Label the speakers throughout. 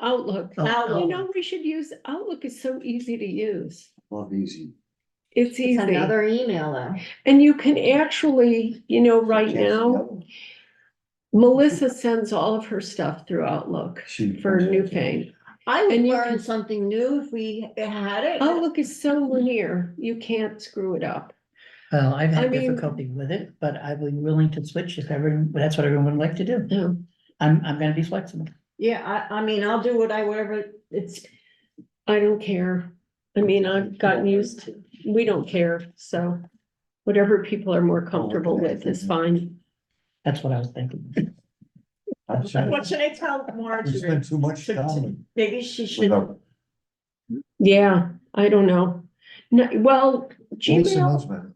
Speaker 1: Outlook.
Speaker 2: Oh,
Speaker 1: Uh, You
Speaker 2: Outlook.
Speaker 1: know, we should use, Outlook is so easy to use.
Speaker 3: Love easy.
Speaker 1: It's
Speaker 2: It's
Speaker 1: easy.
Speaker 2: another email though.
Speaker 1: And you can actually, you know, right
Speaker 3: Can't see
Speaker 1: now,
Speaker 3: that.
Speaker 1: Melissa sends all of her stuff through Outlook
Speaker 3: She-
Speaker 1: for New Pain.
Speaker 2: I would
Speaker 1: And you
Speaker 2: learn
Speaker 1: can- Oh,
Speaker 2: something new if we had it.
Speaker 1: Outlook is so linear, you can't screw it up.
Speaker 4: Well, I've
Speaker 1: I
Speaker 4: had
Speaker 1: mean-
Speaker 4: difficulty with it, but I'd be willing to switch if everyone, that's what everyone would like to do.
Speaker 1: Yeah.
Speaker 4: I'm, I'm gonna be flexible.
Speaker 2: Yeah, I, I mean, I'll do what I, whatever, it's,
Speaker 1: I don't care. I mean, I've gotten used to, we don't care, so whatever people are more comfortable with is fine.
Speaker 4: That's what I was thinking.
Speaker 3: I'm sorry.
Speaker 5: What should I tell
Speaker 3: We
Speaker 5: Marjorie?
Speaker 3: spent too much time
Speaker 2: maybe she should,
Speaker 3: without
Speaker 1: Yeah, I don't know. No, well,
Speaker 3: voice
Speaker 1: Gmail,
Speaker 3: announcement.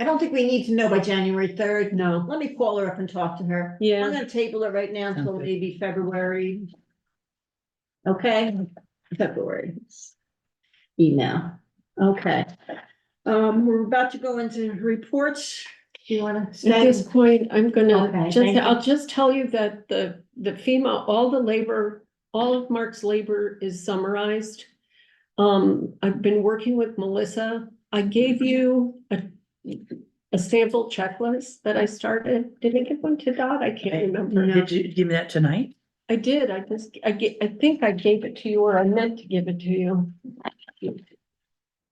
Speaker 2: I don't think we need to know by January third.
Speaker 1: no,
Speaker 2: Let me call her up and talk to her.
Speaker 1: yeah.
Speaker 2: I'm gonna table it right now until
Speaker 4: Sounds good.
Speaker 2: maybe February. Okay, February. Email, okay. Um, we're about to go into reports. Do you wanna?
Speaker 1: At this point, I'm
Speaker 2: Okay,
Speaker 1: gonna,
Speaker 2: thank
Speaker 1: just,
Speaker 2: you.
Speaker 1: I'll just tell you that the, the FEMA, all the labor, all of Mark's labor is summarized. Um, I've been working with Melissa. I gave you a, a sample checklist that I started. Did I give one to Dot? I can't remember.
Speaker 4: Did you give me that tonight?
Speaker 1: I did. I just, I ga- I think I gave it to you or I meant to give it to you.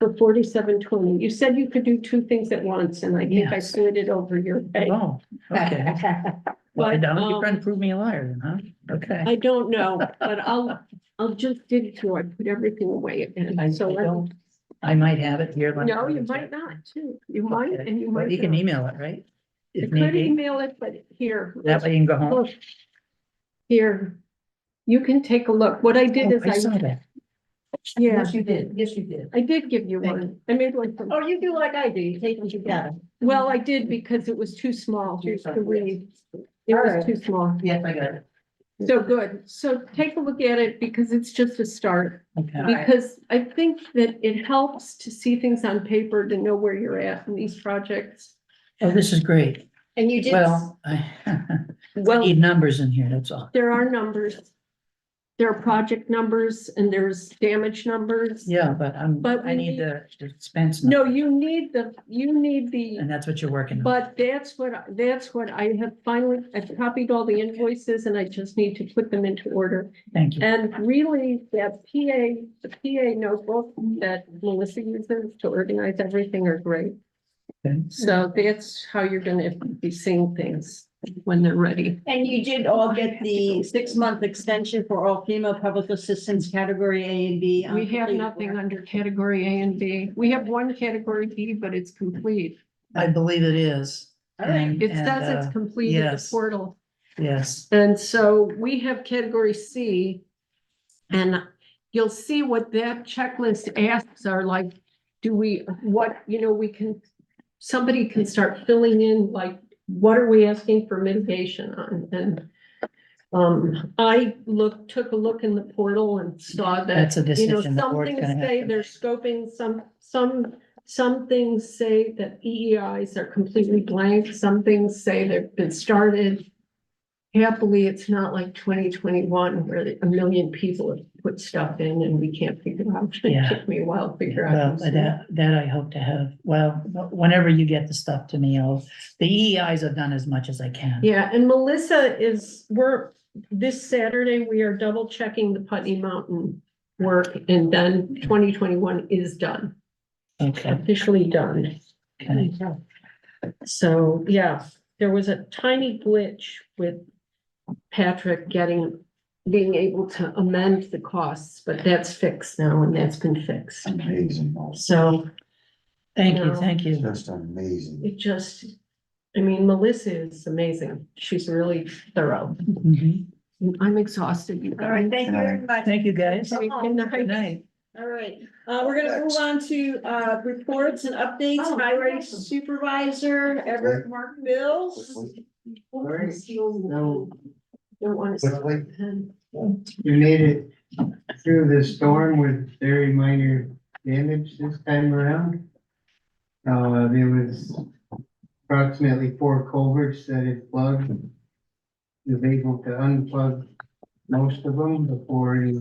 Speaker 1: For forty-seven twenty. You said you could do two things at once and I think I
Speaker 4: Yes.
Speaker 1: slid it over your head.
Speaker 4: Oh, okay. Well,
Speaker 1: But,
Speaker 4: Donald,
Speaker 1: um,
Speaker 4: you're trying to prove me a liar then, huh? Okay.
Speaker 1: I don't know, but I'll, I'll just did it to, I put everything away
Speaker 4: I
Speaker 1: again, so. I-
Speaker 4: don't, I might have it here. let me
Speaker 1: No, you
Speaker 4: double
Speaker 1: might
Speaker 4: check.
Speaker 1: not too, you might,
Speaker 4: Okay.
Speaker 1: and you
Speaker 4: But
Speaker 1: might.
Speaker 4: You can
Speaker 1: not.
Speaker 4: email it,
Speaker 1: I
Speaker 4: right? If need
Speaker 1: could Oh,
Speaker 4: be,
Speaker 1: email it, but here.
Speaker 4: that way you can go home.
Speaker 1: look. Here, you can take a look, what I did
Speaker 4: Oh, I
Speaker 1: is
Speaker 4: saw
Speaker 1: I,
Speaker 4: that.
Speaker 1: yeah,
Speaker 4: you did, yes, you did.
Speaker 1: I did give you
Speaker 4: Thank
Speaker 1: one, I made one, for-
Speaker 2: Oh, you do like I do, you take them together.
Speaker 1: well, I did because it was too small
Speaker 4: Too
Speaker 1: to
Speaker 4: small,
Speaker 1: read. It was
Speaker 2: Alright.
Speaker 1: too small,
Speaker 4: Yes, I got it.
Speaker 1: so good, so take a look at it because it's just a start.
Speaker 4: Okay,
Speaker 2: Alright.
Speaker 1: Because I think that it helps to see things on paper, to know where you're at in these projects.
Speaker 4: oh, this is great.
Speaker 2: And you did.
Speaker 4: Well, I
Speaker 1: Well,
Speaker 4: need numbers in here, that's all.
Speaker 1: there are numbers. There are project numbers and there's damage numbers.
Speaker 4: Yeah, but I'm,
Speaker 1: But
Speaker 4: I
Speaker 1: we need-
Speaker 4: need the expense.
Speaker 1: No,
Speaker 4: number,
Speaker 1: you need the, you need the,
Speaker 4: And that's what you're working on.
Speaker 1: but that's what, I- that's what I have finally, I've copied all the invoices and I just need to put them into order.
Speaker 4: Thank you.
Speaker 1: And really, that PA, the PA notebook that Melissa uses to organize everything are great.
Speaker 4: Okay.
Speaker 1: So that's how you're gonna be seeing things when they're ready.
Speaker 2: And you did all get the six-month extension for all female public assistance category A and B. on
Speaker 1: We have
Speaker 2: completed
Speaker 1: nothing
Speaker 2: work.
Speaker 1: under category A and B. We have one category B, but it's complete.
Speaker 4: I believe it is. And-
Speaker 1: It
Speaker 4: and,
Speaker 1: says it's
Speaker 4: uh,
Speaker 1: complete at the
Speaker 4: yes.
Speaker 1: portal.
Speaker 4: Yes,
Speaker 1: And so we have category C. And you'll see what that checklist asks are like, do we, what, you know, we can, somebody can start filling in, like, what are we asking for mitigation on? And um, I looked, took a look in the portal and saw that,
Speaker 4: that's a
Speaker 1: you know,
Speaker 4: decision the
Speaker 1: some
Speaker 4: board's
Speaker 1: things
Speaker 4: gonna have
Speaker 1: say
Speaker 4: to.
Speaker 1: they're scoping, some, some, some things say that EEIs are completely blank, some things say they've been started. Happily, it's not like twenty twenty-one where the- a million people have put stuff in and we can't figure out. It
Speaker 4: Yeah.
Speaker 1: took me a while to figure
Speaker 4: Well,
Speaker 1: out.
Speaker 4: Uh, that, that I hope to have, well, whenever you get the stuff to me, I'll, the EEIs have done as much as I can.
Speaker 1: Yeah, and Melissa is, we're, this Saturday, we are double checking the Putney Mountain work and then twenty twenty-one is done,
Speaker 4: Okay,
Speaker 1: officially done.
Speaker 4: okay.
Speaker 1: So, yeah, there was a tiny glitch with Patrick getting, being able to amend the costs, but that's fixed now and that's been fixed.
Speaker 3: Amazing, oh,
Speaker 1: So
Speaker 4: Thank you,
Speaker 1: No.
Speaker 4: thank you.
Speaker 3: just amazing.
Speaker 1: it just, I mean, Melissa is amazing. She's really thorough.
Speaker 4: Mhm.
Speaker 1: I'm exhausted. you
Speaker 2: All right,
Speaker 1: guys.
Speaker 2: thank you very much.
Speaker 4: Thank you, guys.
Speaker 1: Okay, good
Speaker 4: Good
Speaker 1: night.
Speaker 4: night.
Speaker 2: All right, uh, we're gonna move on to, uh, reports and updates,
Speaker 1: Oh,
Speaker 2: highway
Speaker 1: awesome.
Speaker 2: supervisor, Everett Mark Mills.
Speaker 6: No,
Speaker 1: Don't want to.
Speaker 6: quickly, we made it through the storm with very minor damage this time around. Uh, there was approximately four culverts that had plugged. We were able to unplug most of them before any